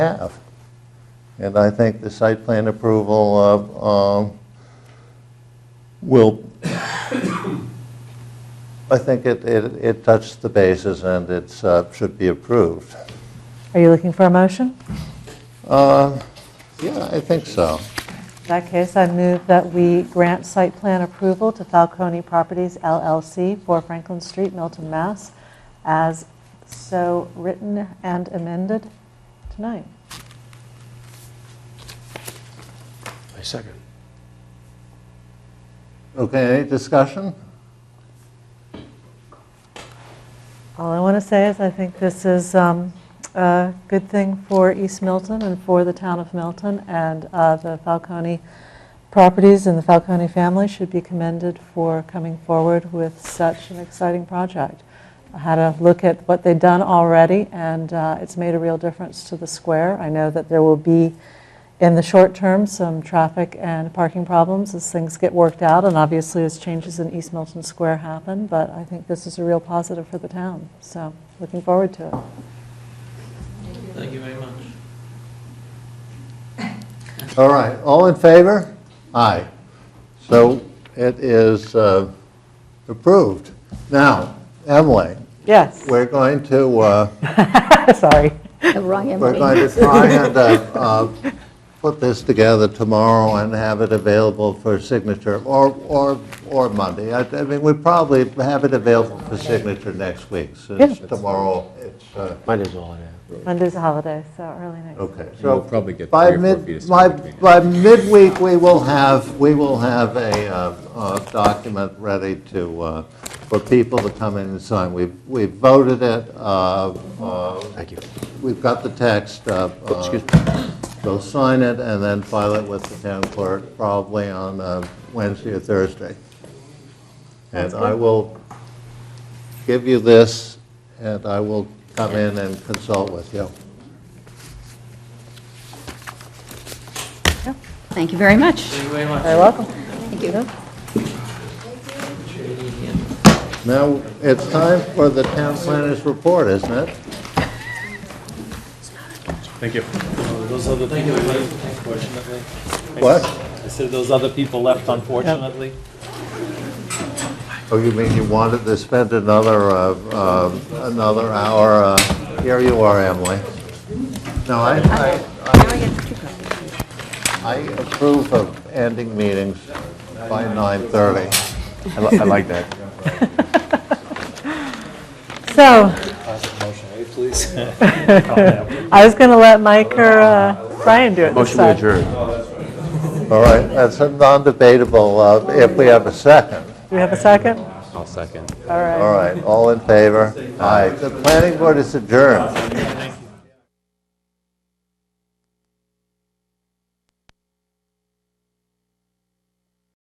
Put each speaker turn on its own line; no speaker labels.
have. And I think the site plan approval uh, um, will, I think it, it it touched the bases and it's, uh, should be approved.
Are you looking for a motion?
Uh, Yeah, I think so.
In that case, I move that we grant site plan approval to Falcone Properties LLC for Franklin Street, Milton, Mass., as so written and amended tonight.
I second.
Okay, any discussion?
All I want to say is I think this is um, a good thing for East Milton and for the town of Milton, and uh, the Falcone properties and the Falcone family should be commended for coming forward with such an exciting project. I had a look at what they've done already, and uh, it's made a real difference to the square. I know that there will be, in the short term, some traffic and parking problems as things get worked out, and obviously as changes in East Milton Square happen, but I think this is a real positive for the town, so looking forward to it.
Thank you very much.
All right, all in favor? Aye. So it is uh, approved. Now, Emily,
Yes,
we're going to, uh,
sorry.
The wrong
we're
Emily.
going to try and uh, uh, put this together tomorrow and have it available for signature, or, or, or Monday. I I mean, we probably have it available for signature next week, since
Yeah.
tomorrow it's, uh,
Might as well have.
Monday's a holiday, so early next week.
okay.
We'll
So
probably get
By
three or four feet
mid,
of
by,
snow between now.
by midweek, we will have, we will have a uh, uh, document ready to, uh, for people to come in and sign. We've, we've voted it, uh, uh,
Thank you.
we've got the text. uh, uh,
Excuse
They'll sign it and then file it with the town clerk probably on uh, Wednesday or Thursday. And I will give you this, and I will come in and consult with you.
Thank you very much.
Thank you very much.
You're welcome.
Thank you.
Now, it's time for the town planner's report, isn't it?
Thank you. Those other people left, unfortunately.
What?
I said those other people left, unfortunately.
Oh, you mean you wanted to spend another, uh, uh, another hour? uh, Here you are, Emily. No, I, I- I approve of ending meetings by 9:30.
I li- I like that.
So,
Please.
I was going to let Mike or uh, Brian do it this
Motion to
time.
adjourn.
All right, Oh, that's a non-debatable uh, if we have a second.
Do we have a second?
I'll second.
All right.
All right, all in favor? Aye. The planning board is adjourned.